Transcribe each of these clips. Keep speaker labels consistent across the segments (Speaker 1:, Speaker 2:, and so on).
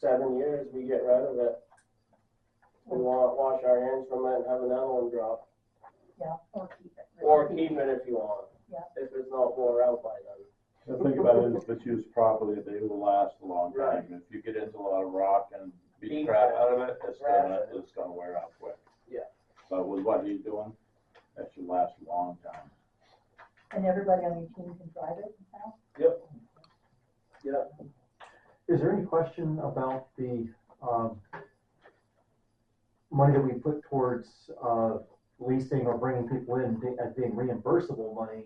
Speaker 1: seven years, we get rid of it. We want, wash our hands from it and have another one drop,
Speaker 2: Yeah, or keep it.
Speaker 1: or keep it if you want.
Speaker 2: Yeah.
Speaker 1: If it's not wore out by then.
Speaker 3: The thing about it is if it's used properly, they will last a long
Speaker 1: Right.
Speaker 3: time. If you get into a lot of rock and beat
Speaker 1: Beat
Speaker 3: crap
Speaker 1: it,
Speaker 3: out of it, it's
Speaker 1: trash
Speaker 3: gonna,
Speaker 1: it.
Speaker 3: it's gonna wear out quick.
Speaker 1: Yeah.
Speaker 3: But with what he's doing, that should last a long time.
Speaker 2: And everybody on your team can drive it now?
Speaker 4: Is there any question about the, um, money that we put towards, uh, leasing or bringing people in be- as being reimbursable money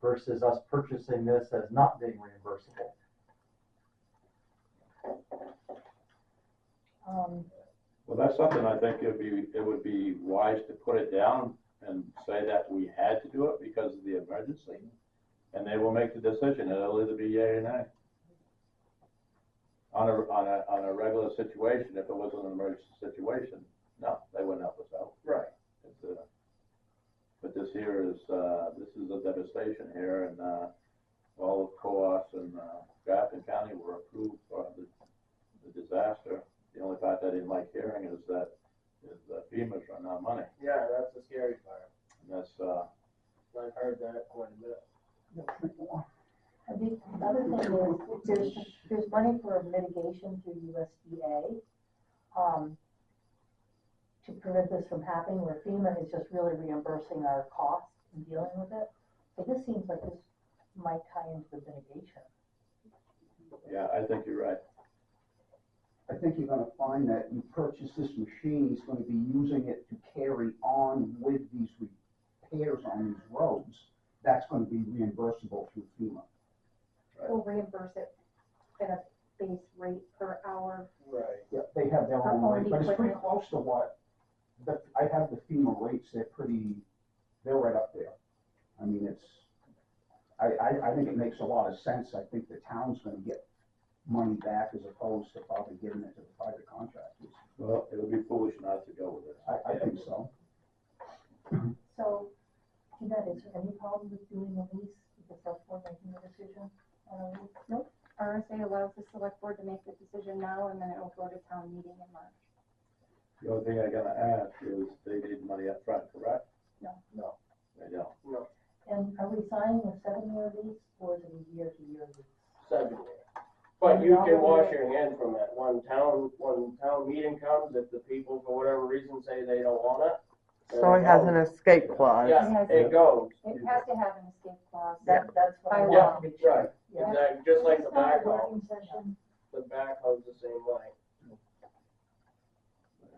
Speaker 4: versus us purchasing this as not being reimbursable?
Speaker 2: Um,
Speaker 3: Well, that's something I think it'd be, it would be wise to put it down and say that we had to do it because of the emergency. And they will make the decision, it'll either be yea or nay. On a, on a, on a regular situation, if it wasn't an emergency situation, no, they wouldn't help us out.
Speaker 1: Right.
Speaker 3: It's, uh, But this here is, uh, this is a devastation here and, uh, all of Coas and, uh, Grafton County were approved for the, the disaster. The only part I didn't like hearing is that, is that FEMA's run out of money.
Speaker 1: Yeah, that's the scary part.
Speaker 3: And that's, uh,
Speaker 1: I've heard that quite a bit.
Speaker 2: and the other thing is, there's, there's money for mitigation through USDA, um, to prevent this from happening, where FEMA is just really reimbursing our costs in dealing with it. So this seems like this might tie into the mitigation.
Speaker 3: yeah, I think you're right.
Speaker 5: I think you're gonna find that you purchase this machine, he's gonna be using it to carry on with these repairs on these roads. That's gonna be reimbursable through FEMA.
Speaker 6: We'll reimburse it at a base rate per hour.
Speaker 1: Right.
Speaker 5: Yeah, they have their
Speaker 6: Our
Speaker 5: own
Speaker 6: own
Speaker 5: rate, but it's pretty
Speaker 6: equipment.
Speaker 5: close to what, the, I have the FEMA rates, they're pretty, they're right up there. I mean, it's, I, I, I think it makes a lot of sense, I think the town's gonna get money back as opposed to probably giving it to the private contractors.
Speaker 3: Well, it would be foolish not to go with it.
Speaker 5: I, I think so.
Speaker 2: So, Jeanette, is there any problem with doing a lease, with the select board making the decision? Um, on a lease?
Speaker 6: RSA allows the select board to make the decision now and then it'll go to town meeting in March.
Speaker 3: The only thing I gotta ask is they need money up front, correct?
Speaker 2: No.
Speaker 1: No.
Speaker 3: They don't.
Speaker 2: And are we signing a seven-year lease or is it a year-to-year lease?
Speaker 1: Seven years. But you can wash your hand from it. When town, when town meeting comes, if the people for whatever reason say they don't want it,
Speaker 7: So it has an escape clause.
Speaker 1: Yeah.
Speaker 6: It has,
Speaker 1: it goes.
Speaker 6: it has to have an escape clause.
Speaker 2: That, that's what I
Speaker 6: By
Speaker 2: want to be sure.
Speaker 1: Right.
Speaker 2: Yeah.
Speaker 1: Exactly, just like the
Speaker 2: It's not a
Speaker 1: backhoe.
Speaker 2: working session.
Speaker 1: The backhoe's the same way.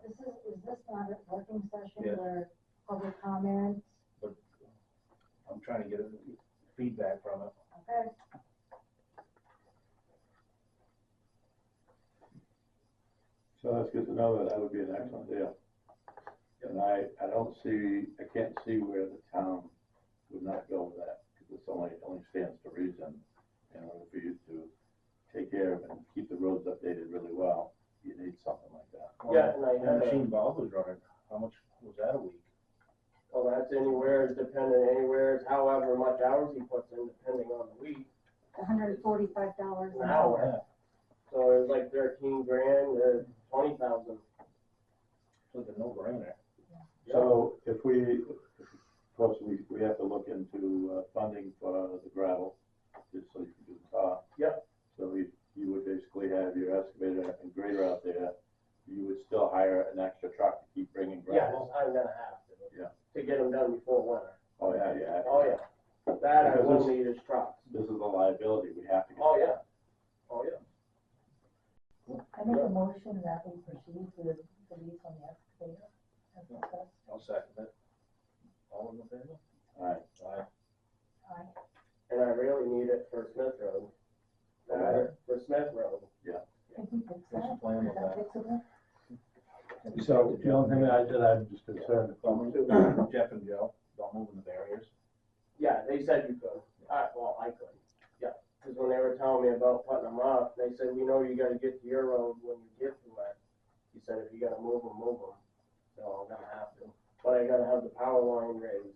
Speaker 8: This is, is this not a working
Speaker 9: Yeah.
Speaker 8: session where public comment?
Speaker 9: I'm trying to get feedback from it.
Speaker 8: Okay.
Speaker 3: So that's good to know that that would be an excellent deal. And I, I don't see, I can't see where the town would not go with that, because it's only, only stands to reason. In order for you to take care of and keep the roads updated really well, you need something like that.
Speaker 1: Yeah, and I
Speaker 9: The
Speaker 1: had a-
Speaker 9: machine Bob was running, how much was that a week?
Speaker 1: Well, that's anywhere, it's dependent, anywhere, it's however much hours he puts in, depending on the week,
Speaker 6: hundred and forty-five dollars
Speaker 1: an
Speaker 6: an
Speaker 1: hour. So it was like thirteen grand to twenty thousand.
Speaker 9: It's like a no-brainer.
Speaker 3: So if we, of course, we, we have to look into uh, funding for the gravel, just so you can do the top.
Speaker 1: Yep.
Speaker 3: So we, you would basically have your excavator and grader out there, you would still hire an extra truck to keep bringing
Speaker 1: Yes,
Speaker 3: gravel?
Speaker 1: I'm gonna have to.
Speaker 3: Yeah.
Speaker 1: To get them done before winter.
Speaker 3: Oh, yeah, yeah.
Speaker 1: Oh, yeah. That I
Speaker 3: Because
Speaker 1: will
Speaker 3: this-
Speaker 1: need is trucks.
Speaker 3: This is a liability, we have to get.
Speaker 1: Oh, yeah. Oh, yeah.
Speaker 2: I make a motion that we proceed with the lease on the excavator. as discussed.
Speaker 9: I'll second it. All in the favor?
Speaker 3: All right,
Speaker 9: Aye.
Speaker 2: Aye.
Speaker 1: And I really need it for Smith Road. Uh,
Speaker 3: Alright.
Speaker 1: For Smith Road.
Speaker 2: Can we fix
Speaker 9: What's
Speaker 2: that?
Speaker 9: the plan
Speaker 2: Is
Speaker 9: with
Speaker 2: that
Speaker 9: that?
Speaker 2: fixable?
Speaker 3: so the only thing I did, I'm just concerned.
Speaker 9: Don't move- Jeff and Joe, don't move in the barriers.
Speaker 1: Yeah, they said you could. I, well, I could. Yeah, because when they were telling me about putting them up, they said, we know you gotta get to your road when you get to it. He said, if you gotta move them, move them. So I'm gonna have to. But I gotta have the power line raised.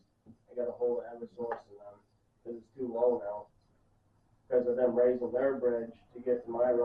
Speaker 1: I gotta hold every source in them, because it's too low now. Because of them raising their bridge to get to my road.